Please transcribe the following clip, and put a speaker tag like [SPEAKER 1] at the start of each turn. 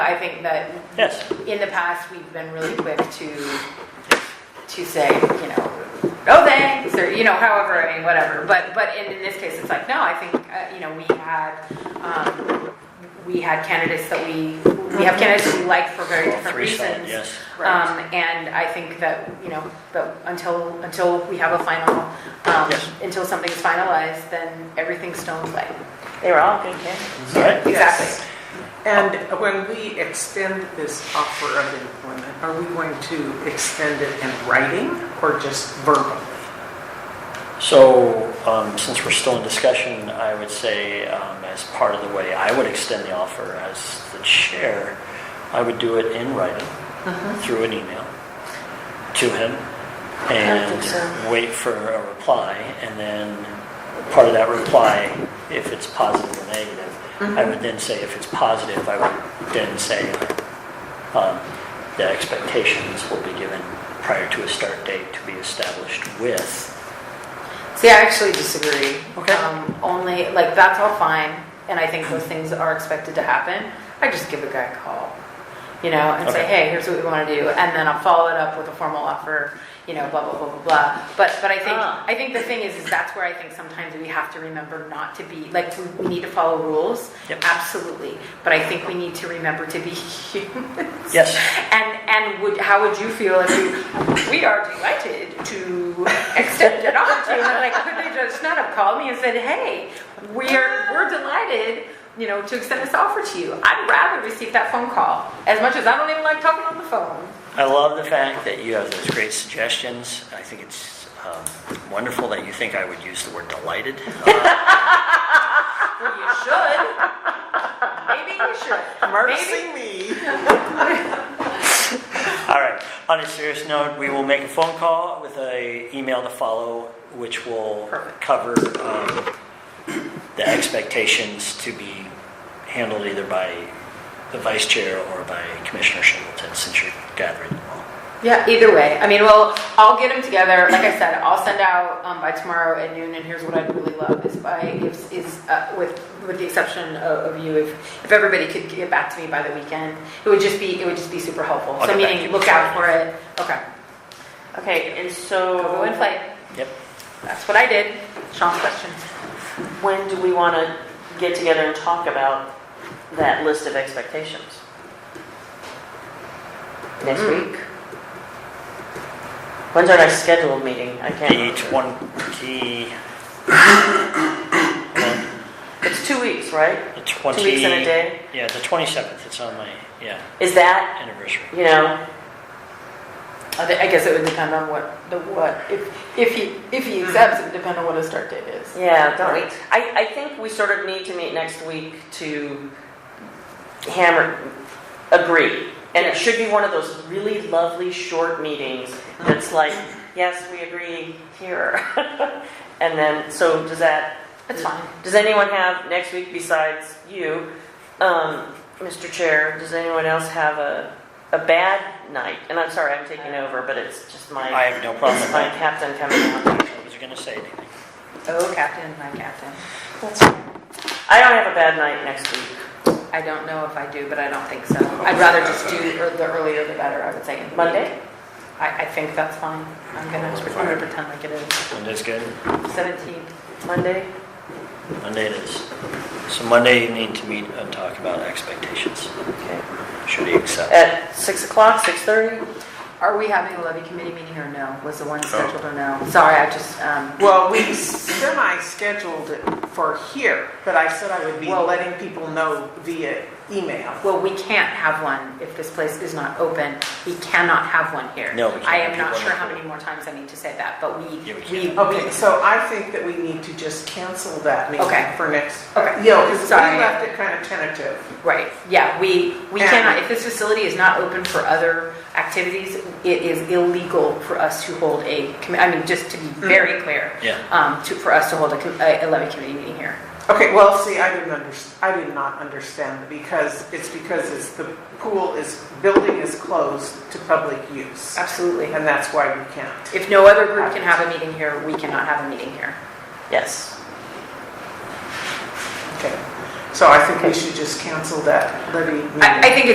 [SPEAKER 1] I think that
[SPEAKER 2] Yes.
[SPEAKER 1] in the past, we've been really quick to, to say, you know, oh, thanks, or, you know, however, I mean, whatever. But, but in, in this case, it's like, no, I think, uh, you know, we had, um, we had candidates that we, we have candidates we like for very different
[SPEAKER 2] Three solid,
[SPEAKER 1] reasons.
[SPEAKER 2] yes.
[SPEAKER 1] Um, and I think that, you know, but until, until we have a final, um,
[SPEAKER 2] Yes.
[SPEAKER 1] until something's finalized, then everything's stone play.
[SPEAKER 3] They were all good candidates.
[SPEAKER 2] All right.
[SPEAKER 1] Exactly.
[SPEAKER 4] And when we extend this offer of employment, are we going to extend it in writing or just verbally?
[SPEAKER 2] So, um, since we're still in discussion, I would say, um, as part of the way I would extend the offer as the chair, I would do it in writing,
[SPEAKER 3] Uh-huh.
[SPEAKER 2] through an email to him,
[SPEAKER 3] think so.
[SPEAKER 2] and wait for a reply, and then part of that reply, if it's positive or negative, I
[SPEAKER 3] Mm-hmm.
[SPEAKER 2] would then say, if it's positive, I would then say, um, the expectations will be given prior to a start date to be established with
[SPEAKER 1] See, I actually disagree.
[SPEAKER 2] Okay.
[SPEAKER 1] Um, Only, like, that's all fine, and I think those things are expected to happen. I just give a guy a call, you know, and say,
[SPEAKER 2] Okay.
[SPEAKER 1] hey, here's what we want to do, and then I'll follow it up with a formal offer, you know, blah, blah, blah, blah, blah. But, but I think,
[SPEAKER 3] Ah.
[SPEAKER 1] I think the thing is, is that's where I think sometimes we have to remember not to be, like, we- we need to follow rules,
[SPEAKER 2] Yep.
[SPEAKER 1] absolutely, but I think we need to remember to be humans.
[SPEAKER 2] Yes.
[SPEAKER 1] And, and would, how would you feel if you, we are delighted to extend an offer to you? And like, could they just not have called me and said, hey, we're, we're delighted, you know, to extend this offer to you? I'd rather receive that phone call, as much as I don't even like talking on the phone.
[SPEAKER 2] I love the fact that you have those great suggestions. I think it's um, wonderful that you think I would use the word delighted. Uh,
[SPEAKER 1] Well, you should. Maybe you should. Maybe-
[SPEAKER 4] Mercy me.
[SPEAKER 2] all right. On a serious note, we will make a phone call with a email to follow, which will
[SPEAKER 1] Perfect.
[SPEAKER 2] cover um, the expectations to be handled either by the vice chair or by Commissioner Singleton, since you're gathering them all.
[SPEAKER 1] Yeah, either way. I mean, well, I'll get them together. Like I said, I'll send out um, by tomorrow at noon. And here's what I'd really love is by if is uh, with with the exception of, of you, if if everybody could get back to me by the weekend, it would just be it would just be super helpful. so
[SPEAKER 2] I'll get back to
[SPEAKER 1] meaning,
[SPEAKER 2] you
[SPEAKER 1] look
[SPEAKER 2] before
[SPEAKER 1] out for it. Okay,
[SPEAKER 3] Okay, and so.
[SPEAKER 1] go and play.
[SPEAKER 2] Yep.
[SPEAKER 1] That's what I did. Sean's question.
[SPEAKER 3] When do we want to get together and talk about that list of expectations? Next week? When's our next scheduled meeting? I can't.
[SPEAKER 2] The
[SPEAKER 3] remember.
[SPEAKER 2] 20,
[SPEAKER 3] It's two weeks, right?
[SPEAKER 2] the 20.
[SPEAKER 3] Two weeks and a day?
[SPEAKER 2] Yeah, the 27th. It's on my yeah
[SPEAKER 3] Is that,
[SPEAKER 2] anniversary.
[SPEAKER 3] you know,
[SPEAKER 1] I thi- I guess it would depend on what the what if if he if he accepts it would depend on what his start date is.
[SPEAKER 3] yeah, don't we? I, I think we sort of need to meet next week to hammer, agree. And it should be one of those really lovely, short meetings that's like, yes, we agree here. And then, so does that
[SPEAKER 1] That's fine.
[SPEAKER 3] Does anyone have, next week besides you, um, Mr. Chair, does anyone else have a, a bad night? And I'm sorry, I'm taking over, but it's just
[SPEAKER 2] I
[SPEAKER 3] my,
[SPEAKER 2] have no problem with
[SPEAKER 3] it's my
[SPEAKER 2] that.
[SPEAKER 3] captain coming out.
[SPEAKER 2] I was going to say anything.
[SPEAKER 1] Oh, captain, my captain.
[SPEAKER 3] I don't have a bad night next week.
[SPEAKER 1] I don't know if I do, but I don't think so. I'd rather just do ear- the earlier the better, I would say. in the
[SPEAKER 3] Monday?
[SPEAKER 1] week. I, I think that's fine. I'm gonna, I'm gonna pretend like it is.
[SPEAKER 2] Monday's good.
[SPEAKER 1] 17th.
[SPEAKER 3] Monday?
[SPEAKER 2] Monday it is. So Monday you need to meet and talk about expectations.
[SPEAKER 3] Okay.
[SPEAKER 2] Should he accept?
[SPEAKER 3] At 6 o'clock, 6:30?
[SPEAKER 1] Are we having a levy committee meeting or no? Was the one scheduled or no? Sorry, I just, um,
[SPEAKER 4] Well, we semi-scheduled it for here, but I said I would be
[SPEAKER 1] Well-
[SPEAKER 4] letting people know via email.
[SPEAKER 1] well, we can't have one if this place is not open. We cannot have one here.
[SPEAKER 2] No, we can't.
[SPEAKER 1] I am not
[SPEAKER 2] People
[SPEAKER 1] sure
[SPEAKER 2] are
[SPEAKER 1] how
[SPEAKER 2] not-
[SPEAKER 1] many more times I need to say that, but we,
[SPEAKER 2] Yeah, we
[SPEAKER 1] we,
[SPEAKER 2] can't.
[SPEAKER 4] Okay,
[SPEAKER 1] we,
[SPEAKER 4] so I think that we need to just cancel that meeting
[SPEAKER 1] Okay.
[SPEAKER 4] for next.
[SPEAKER 1] Okay.
[SPEAKER 4] Yeah, because we
[SPEAKER 1] Sorry.
[SPEAKER 4] left it kind of tentative.
[SPEAKER 1] right, yeah, we, we
[SPEAKER 4] Yeah.
[SPEAKER 1] cannot, if this facility is not open for other activities, it is illegal for us to hold a, commi- I mean, just to be very clear.
[SPEAKER 2] Yeah.
[SPEAKER 1] um, to, for us to hold a, com- a a levy committee meeting here.
[SPEAKER 4] Okay, well, see, I didn't under, I did not understand because it's because it's the pool is, building is closed to public use.
[SPEAKER 1] Absolutely.
[SPEAKER 4] And that's why we can't.
[SPEAKER 1] If no other group can have a meeting here, we cannot have a meeting here.
[SPEAKER 3] Yes.
[SPEAKER 4] Okay. So I think we should just cancel that levy meeting.
[SPEAKER 1] I, I think